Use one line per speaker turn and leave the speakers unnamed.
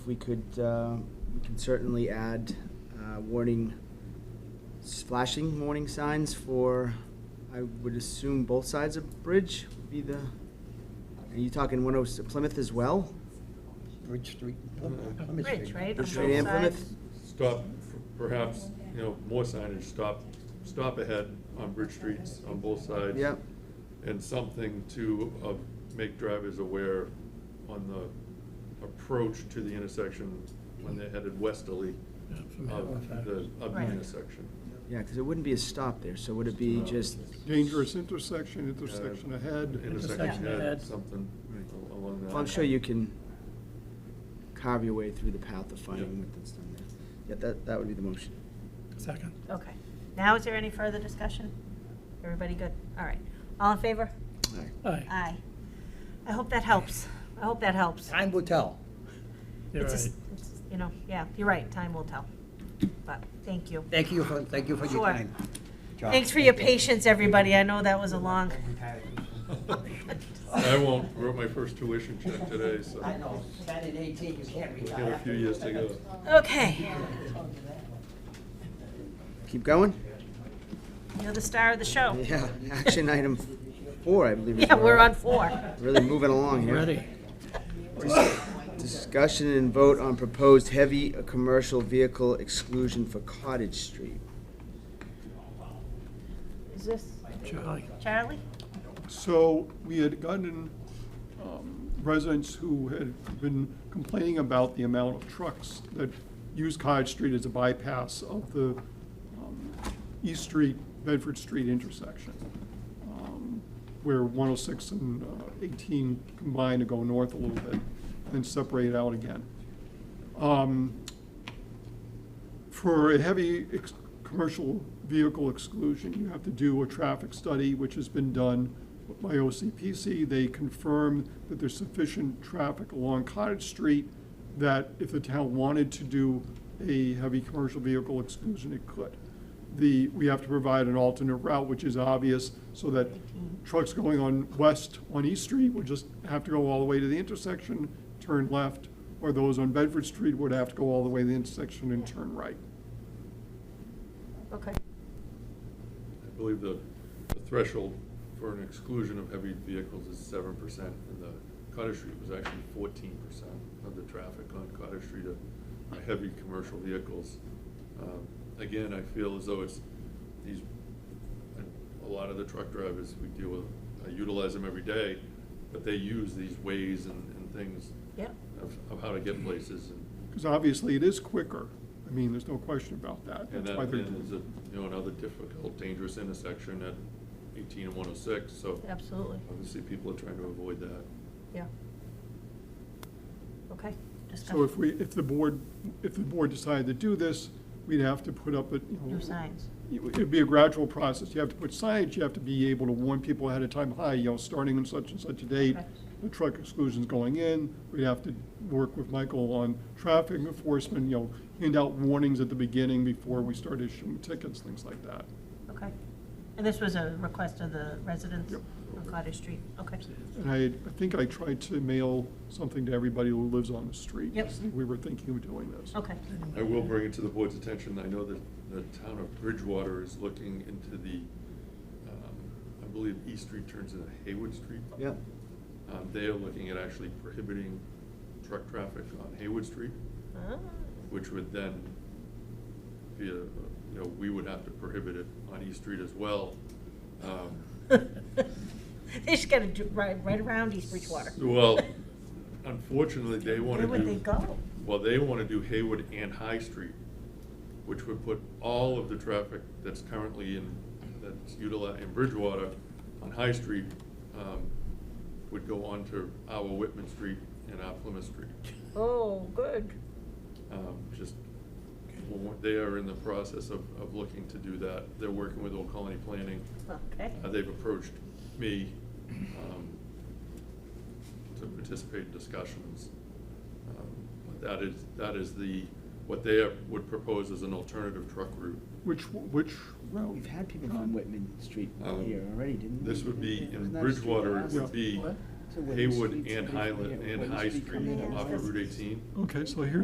We could, uh, we could certainly add uh, warning, s- flashing warning signs for, I would assume both sides of Bridge would be the, are you talking 106 Plymouth as well?
Bridge Street.
Mm-hmm.
Plymouth
Bridge,
Street.
right?
Bridge
Straight in
On both
Plymouth?
sides.
Stop, perhaps, you know, more signage, stop, stop ahead on Bridge Streets on both sides.
Yep.
And something to, uh, make drivers aware on the approach to the intersection when they're headed westerly of the, of the
Right.
intersection.
Yeah, because it wouldn't be a stop there, so would it be
No.
just,
Dangerous intersection, intersection ahead.
Uh, Intersection
ahead.
ahead, something al- along that.
well, I'm sure you can carve your way through the path of finding
Yeah.
what that's done there. Yeah, that, that would be the motion.
Second.
Okay. Now, is there any further discussion? Everybody good? All right. All in favor?
Aye.
Aye. I hope that helps. I hope that helps.
Time will tell.
You're
It's just-
right.
it's- You know, yeah, you're right. Time will tell. But, thank you.
Thank you for, thank you for your
Sure.
time. John.
Thanks for your
Thank you.
patience, everybody. I know that was a long.
I won't, wrote my first tuition check today, so
I know, ten and eighteen, you can't
we've
retire.
got a few years to go.
Okay.
Keep going?
You're the star of the show.
Yeah, action item four, I believe. is
Yeah,
where
we're
we're
on four.
Really moving along here.
Ready?
Discussion and vote on proposed heavy commercial vehicle exclusion for Cottage Street.
Is this
Charlie.
Charlie?
So we had gotten um, residents who had been complaining about the amount of trucks that use Cottage Street as a bypass of the um, East Street, Bedford Street intersection, um, where 106 and uh, 18 combine to go north a little bit and separate out again. Um, for a heavy ex- commercial vehicle exclusion, you have to do a traffic study, which has been done by OCPC. They confirm that there's sufficient traffic along Cottage Street, that if the town wanted to do a heavy commercial vehicle exclusion, it could. The, we have to provide an alternate route, which is obvious, so that trucks going on west on East Street would just have to go all the way to the intersection, turn left, or those on Bedford Street would have to go all the way to the intersection and turn right.
Okay.
I believe the the threshold for an exclusion of heavy vehicles is seven percent, and the Cottage Street was actually fourteen percent of the traffic on Cottage Street are are heavy commercial vehicles. Um, Again, I feel as though it's these, a lot of the truck drivers we deal with, I utilize them every day, but they use these ways and, and things
Yep.
of, of how to get places, and,
Because obviously, it is quicker. I mean, there's no question about that.
and
That's
that
why they're-
then is a, you know, another difficult, dangerous intersection at eighteen and one oh six, so.
Absolutely.
Obviously, people are trying to avoid that.
Yeah. Okay.
So if we, if the board, if the board decided to do this, we'd have to put up, a, you know.
New signs.
It would it'd be a gradual process. You have to put signage, you have to be able to warn people ahead of time, hi, you know, starting on such and such a date,
Okay.
the truck exclusion's going in. We'd have to work with Michael on traffic enforcement, you know, hand out warnings at the beginning before we start issuing tickets, things like that.
Okay. And this was a request of the residents
Yep.
on Cottage Street? Okay.
And I, I think I tried to mail something to everybody who lives on the street.
Yep.
We were thinking of doing this.
Okay.
I will bring it to the board's attention, I know that the town of Bridgewater is looking into the, um, I believe East Street turns into Haywood Street.
Yep.
Um, They are looking at actually prohibiting truck traffic on Haywood Street,
Ah.
which would then be a, you know, we would have to prohibit it on East Street as well. Um,
They just gotta do, right, right around East Bridgewater.
Well, unfortunately, they want to
Where
do.
would they go?
Well, they want to do Haywood and High Street, which would put all of the traffic that's currently in, that's utilized in Bridgewater on High Street, um, would go onto our Whitman Street and our Plymouth Street.
Oh, good.
Um, Just, well, they are in the process of, of looking to do that. They're working with Old Colony Planning.
Okay.
Uh, They've approached me um, to participate in discussions. Um, But that is, that is the, what they would propose as an alternative truck route.
Which, which route?
We've had people from Whitman Street
Um,
here already, didn't we?
This would be,
Wasn't
in
that a street
Bridgewater, it
last-
would be
What? So when the
Haywood
streets-
and
when the-
Highland
when
and
the
High
street
Street
coming in,
off of Route eighteen.
Okay, so here's